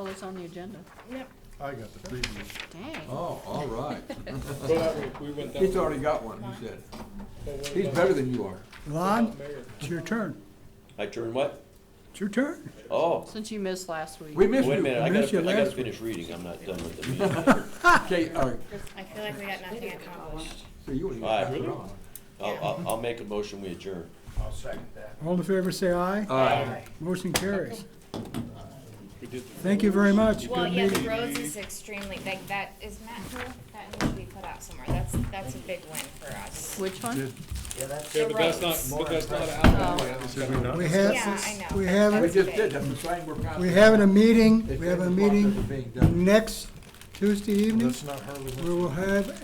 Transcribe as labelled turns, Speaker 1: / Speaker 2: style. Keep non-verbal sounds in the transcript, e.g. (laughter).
Speaker 1: was Oh, on the agenda.
Speaker 2: Yep.
Speaker 3: I got the preview.
Speaker 1: Dang.
Speaker 4: Oh, all
Speaker 5: (laughs)
Speaker 4: right. (laughs)
Speaker 5: But we went down.
Speaker 4: He's already got one, he said. He's better than you are.
Speaker 6: Lon, it's your turn.
Speaker 5: I turn what?
Speaker 6: It's your turn.
Speaker 5: Oh,
Speaker 1: Since you missed last week.
Speaker 4: We missed
Speaker 5: wait a
Speaker 4: you.
Speaker 5: minute, I
Speaker 6: I missed
Speaker 5: gotta,
Speaker 6: you
Speaker 5: I gotta
Speaker 6: last
Speaker 5: finish reading, I'm not done with the meeting.
Speaker 4: Okay, all right,
Speaker 2: I feel like we got nothing accomplished.
Speaker 4: so you want to
Speaker 5: All right.
Speaker 4: pass it on.
Speaker 5: I'll, I'll, I'll make a motion, we adjourn.
Speaker 3: I'll second that.
Speaker 6: All in favor, say aye.
Speaker 4: All right.
Speaker 6: Motion carries. Thank you very much.
Speaker 2: Well,
Speaker 6: Good
Speaker 2: yeah, the
Speaker 6: meeting.
Speaker 2: roads is extremely, like, that, is Matt here? That needs to be put out somewhere, that's, that's a big win for us.
Speaker 1: Which one?
Speaker 2: The roads.
Speaker 5: but that's not
Speaker 6: We
Speaker 2: Yeah,
Speaker 6: have,
Speaker 2: I know.
Speaker 6: we have-
Speaker 4: We
Speaker 2: That's
Speaker 4: just
Speaker 2: big.
Speaker 4: did, that's the sign we're kind of.
Speaker 6: we're having a meeting,
Speaker 4: It's
Speaker 6: we have a
Speaker 4: been blocked
Speaker 6: meeting
Speaker 4: as it's being done.
Speaker 6: next Tuesday evening.
Speaker 3: Let's not hurry.
Speaker 6: We will have